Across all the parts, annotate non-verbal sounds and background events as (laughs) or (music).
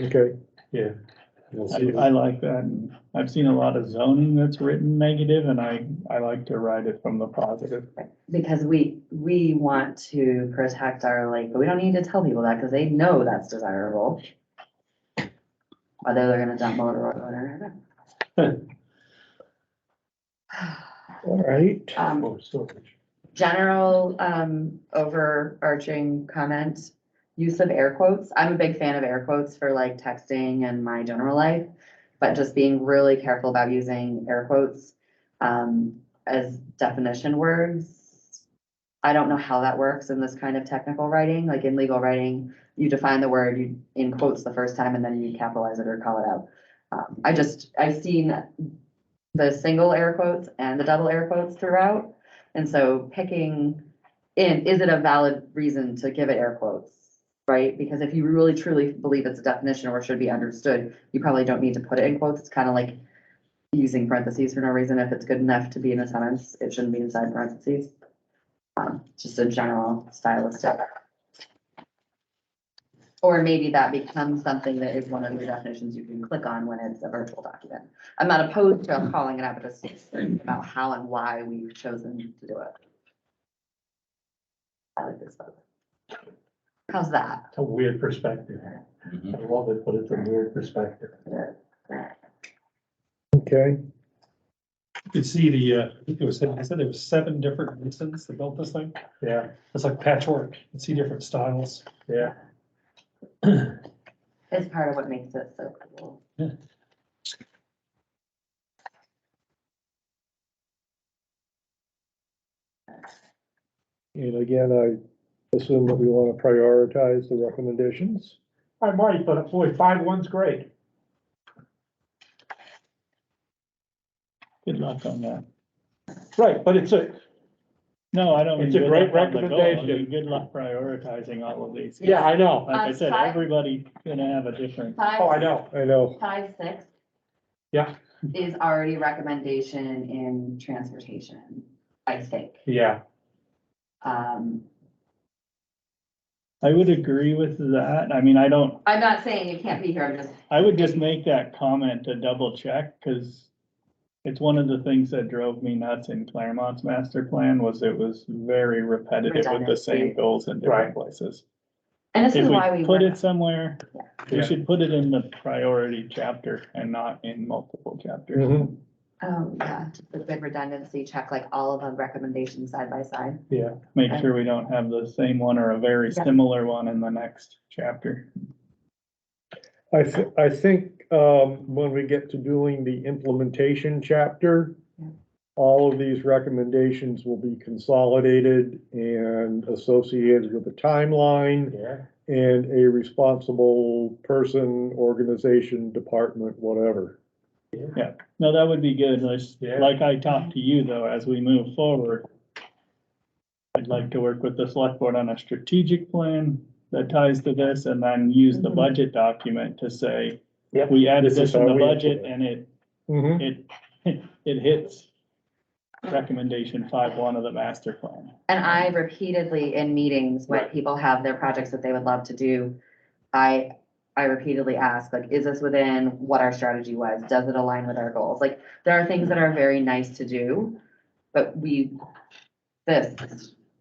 Okay, yeah. We'll see. I, I like that. and I've seen a lot of zoning that's written negative and I, I like to write it from the positive. Because we, we want to protect our lake, but we don't need to tell people that because they know that's desirable. Although they're gonna dump motor oil in there. (laughs) All right. Um, Oh, storage. General, um, overarching comment, use of air quotes. I'm a big fan of air quotes for like texting and my general life. But just being really careful about using air quotes, um, as definition words. I don't know how that works in this kind of technical writing, like in legal writing, you define the word, you in quotes the first time and then you capitalize it or call it out. Um, I just, I've seen the single air quotes and the double air quotes throughout. And so picking in, is it a valid reason to give it air quotes? Right? Because if you really truly believe it's a definition or should be understood, you probably don't need to put it in quotes. It's kind of like using parentheses for no reason. If it's good enough to be in a sentence, it shouldn't be inside parentheses. Um, just a general stylistic. Or maybe that becomes something that is one of the definitions you can click on when it's a virtual document. I'm not opposed to calling it out, but just thinking about how and why we've chosen to do it. I like this book. How's that? It's a weird perspective. I love it, but it's a weird perspective. Okay, You could see the, uh, I think it was, I said there was seven different masons that built this thing. yeah, It's like patchwork. You can see different styles. yeah. It's part of what makes it so cool. Yeah. And again, I assume that we want to prioritize the recommendations. I might, but boy, five one's great. Good luck on that. Right, but it's a, No, I don't. mean It's a good great luck on the goal, I mean, recommendation. Good luck prioritizing all of these. yeah, I know. Like I Um, said, five- everybody gonna have a different, Five, Oh, I know. I know, five, six. Yeah. Is already recommendation in transportation, I think. Yeah, Um, I would agree with that. I mean, I don't, I'm not saying it can't be here, I'm just, I would just make that comment to double check, cause it's one of the things that drove me nuts in Claremont's master plan was it was very repetitive with the same Redundancy. goals in different places. and this If is why we we. put work- it somewhere, Yeah. we should put it in the priority chapter and not in multiple chapters. Mhm. Oh, yeah, just the good redundancy check, like all of the recommendations side by side. Make sure we don't have the same one or a very Yeah. similar one in the next chapter. I thi- I think, um, when we get to doing the implementation chapter, Yeah. all of these recommendations will be consolidated and associated with a timeline yeah. and a responsible person, organization, department, whatever. No, that would be good. Let's- Yeah. Like I talked to you though, as we move forward. I'd like to work with the select board on a strategic plan that ties to this and then use the Mhm. budget document to say, Yep. we added This is this in how the we budget implement and it Mhm. it, (laughs) it hits recommendation five one of the master plan. And I repeatedly in meetings, when Right. people have their projects that they would love to do, I, I repeatedly ask, like, is this within what our strategy was? Does it align with our goals? Like, there are things that are very nice to do, but we, this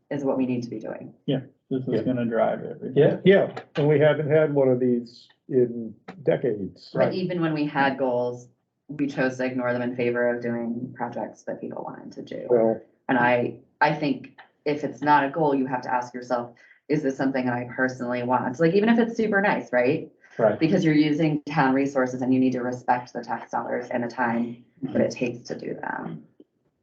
is what we need to be doing. This Yeah. is gonna drive everything. Yeah, Yeah, and we haven't had one of these in decades. But even when we had goals, we chose to ignore them in favor of doing projects that people wanted to do. So, And I, I think if it's not a goal, you have to ask yourself, is this something that I personally want? Like, even if it's super nice, right? Right. Because you're using town resources and you need to respect the tax dollars and the time that it takes to do them.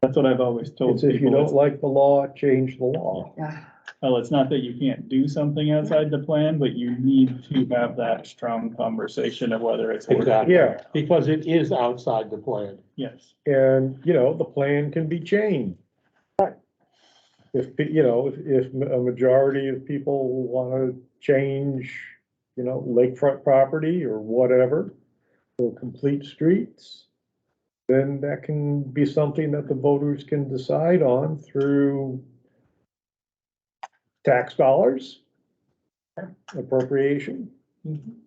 That's what I've always told it's if you people. don't it's- like the law, change the law. Yeah, Well, it's not that you can't do something outside the plan, but you need to have that strong conversation of whether it's. working. exactly. Yeah, Because it is outside the plan. Yes, and, you know, the plan can be changed. If, pe- you know, if, if a majority of people wanna change, you know, lakefront property or whatever, or complete streets, then that can be something that the voters can decide on through tax dollars, appropriation. Mhm.